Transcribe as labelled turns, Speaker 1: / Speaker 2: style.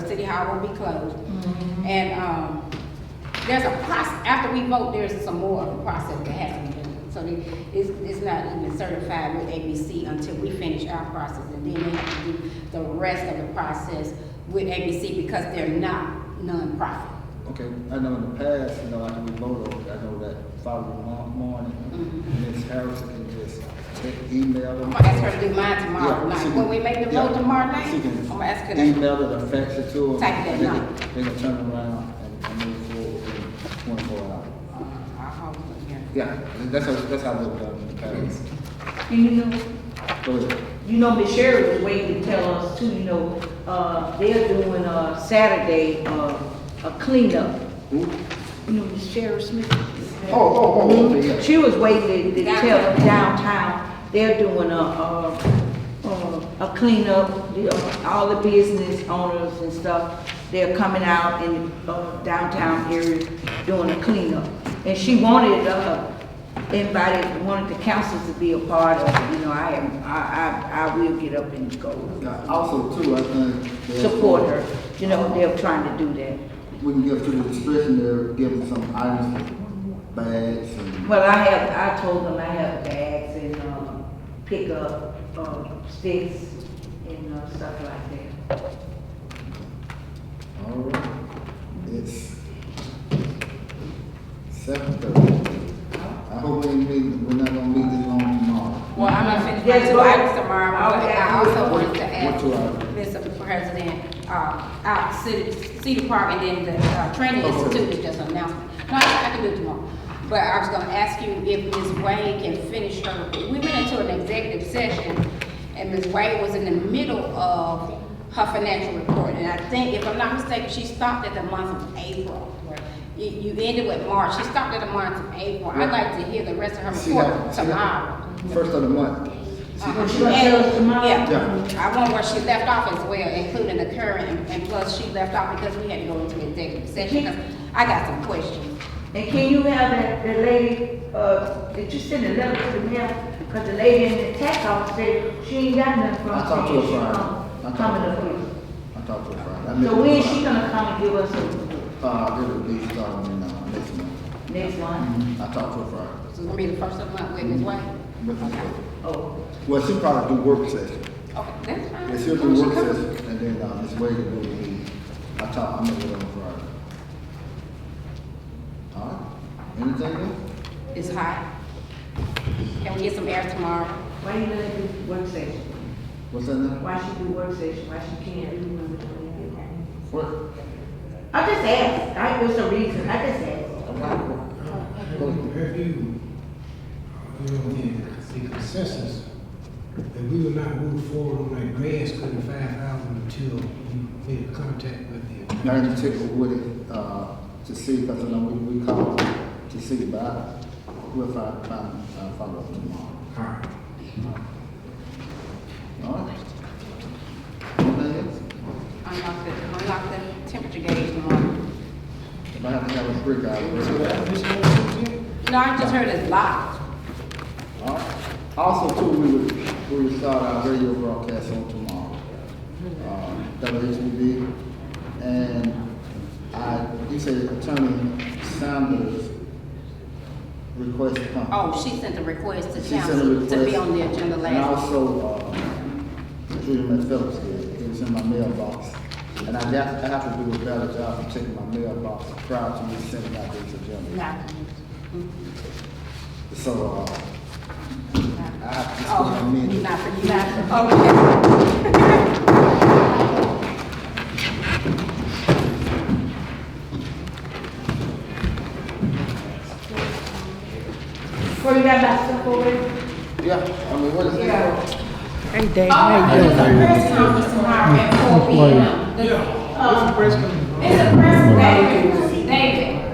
Speaker 1: hall will be closed. And, um, there's a process, after we vote, there's some more of a process that has to be done. So they- it's, it's not even certified with ABC until we finish our process, and then they have to do the rest of the process with ABC because they're not nonprofit.
Speaker 2: Okay, I know in the past, you know, after we voted, I know that following mo- morning, Ms. Harrison can just e- email them.
Speaker 1: I'm gonna ask her to do mine tomorrow
Speaker 2: Yeah, she
Speaker 1: night,
Speaker 2: can-
Speaker 1: when we make the vote
Speaker 2: yeah,
Speaker 1: tomorrow night,
Speaker 2: she
Speaker 1: I'm
Speaker 2: can
Speaker 1: gonna ask her to.
Speaker 2: Email it, or fax it to them.
Speaker 1: Type that
Speaker 2: and they can-
Speaker 1: night.
Speaker 2: They can turn around and- and move forward in twenty-four hours.
Speaker 1: Uh, I'll hold it here.
Speaker 2: Yeah, that's how, that's how they've done in the past.
Speaker 3: And you know,
Speaker 2: Go ahead.
Speaker 3: you know, Miss Sherry was waiting to tell us too, you know, uh, they're doing, uh, Saturday, uh, a cleanup.
Speaker 2: Who?
Speaker 3: You know, Miss Sherry Smith.
Speaker 2: Oh, oh, oh, okay, yeah.
Speaker 3: She was waiting to to tell us
Speaker 1: Downtown.
Speaker 3: downtown, they're doing a, a, uh, a- a cleanup, the, uh, all the business owners and stuff. They're coming out in uh, downtown area doing a cleanup. And she wanted, uh, invited, wanted the council to be a part of, it. you know, I am, I, I, I will get up and
Speaker 2: Now,
Speaker 3: go.
Speaker 2: Also too, I think. there's-
Speaker 3: Support her, you know, they're trying to do that.
Speaker 2: We can give to the discretion, they're giving some items, like bags and.
Speaker 3: Well, I have, I told them I have bags and, um, pickup, um, sticks and, uh, stuff like that.
Speaker 2: All right, it's seven thirty. I hope we ain't meeting, we're not gonna meet this long tomorrow.
Speaker 1: Well, I'm gonna finish my
Speaker 3: Yes,
Speaker 1: two
Speaker 3: but-
Speaker 1: items tomorrow, but I also
Speaker 2: What-
Speaker 1: wanted to ask,
Speaker 2: what two items?
Speaker 1: Mr. President, uh, uh, City, City Park and then the, uh, Training
Speaker 2: Oh, okay.
Speaker 1: Institute is just announced. No, I I can do it tomorrow, but I was gonna ask you if Ms. Wade can finish her, we went into an executive session, and Ms. Wade was in the middle of her financial report, and I think, if I'm not mistaken, she stopped at the month of April. You, you ended with March, she stopped at the month of April, I'd like to hear the rest of her
Speaker 2: See how-
Speaker 1: report
Speaker 2: see how-
Speaker 1: tomorrow.
Speaker 2: First of the month. See-
Speaker 1: Uh,
Speaker 3: she gonna tell us tomorrow?
Speaker 1: Yeah, I want where she left off as well, including the current, and- and plus she left off because we had to go into executive session, 'cause I got some questions.
Speaker 3: And can you have that, the lady, uh, did you send a letter to the mail? Cause the lady in the tax office said she ain't got nothing from.
Speaker 2: I talked to her Friday. I talked to
Speaker 3: Coming
Speaker 2: her
Speaker 3: up
Speaker 2: Friday.
Speaker 3: here.
Speaker 2: I talked to her Friday. I met
Speaker 3: So
Speaker 2: her
Speaker 3: when is she
Speaker 2: Friday.
Speaker 3: gonna come and give us a,
Speaker 2: Uh, it'll be starting in, uh, next month.
Speaker 3: next one?
Speaker 2: Mhm. I talked to her Friday.
Speaker 1: So it's gonna be the first of the month with Ms. White?
Speaker 2: With her.
Speaker 3: Oh,
Speaker 2: Well, she probably do work session.
Speaker 1: Okay, that's fine.
Speaker 2: Yes, she'll do work session, and then, uh, Ms. Wade will do the meeting. I talked, I met with her on Friday. All right, anything else?
Speaker 1: It's hot. Can we get some air tomorrow?
Speaker 3: why you let her do work session?
Speaker 2: What's that now?
Speaker 3: Why she do work session? Why she can't? do when we don't get her?
Speaker 2: What?
Speaker 3: I just asked, I, was a reason, I just asked.
Speaker 4: Have you, you know, the the consensus that we would not move forward on that grass cutting five thousand until we made contact with the.
Speaker 2: Now, in particular, with it, uh, to see, because, you know, we, we called to see, but I, we'll find, find, uh, follow up tomorrow.
Speaker 4: All right.
Speaker 2: All right? Anything else?
Speaker 1: Unlock the, unlock the temperature gauge tomorrow.
Speaker 2: If I have to have a break, I'll
Speaker 4: So
Speaker 2: break
Speaker 4: that,
Speaker 2: it.
Speaker 4: this one, this
Speaker 1: No, I just heard it's locked.
Speaker 2: All right? Also, too, we would, we would start our radio broadcast on tomorrow. Uh, WHB, and I, you said Attorney Sanders requested.
Speaker 1: Oh, she sent a request to
Speaker 2: She sent
Speaker 1: council
Speaker 2: a
Speaker 1: to be
Speaker 2: request.
Speaker 1: on the agenda
Speaker 2: And
Speaker 1: last.
Speaker 2: also, uh, Judy Mae Phillips did, it was in my mailbox. And I have, I have to do a better job of checking my mailbox prior to me sending out this agenda.
Speaker 1: Nah,
Speaker 2: So, uh,
Speaker 1: nah.
Speaker 2: I have to just put
Speaker 1: Oh,
Speaker 2: them in.
Speaker 1: not for you, not, okay.
Speaker 3: Well, you got that stuff over there?
Speaker 2: Yeah, I mean, what is
Speaker 3: Yeah.
Speaker 2: this?
Speaker 1: Oh, there's a press conference tomorrow at four P M.
Speaker 4: Yeah. What's the press conference?
Speaker 1: It's a press conference.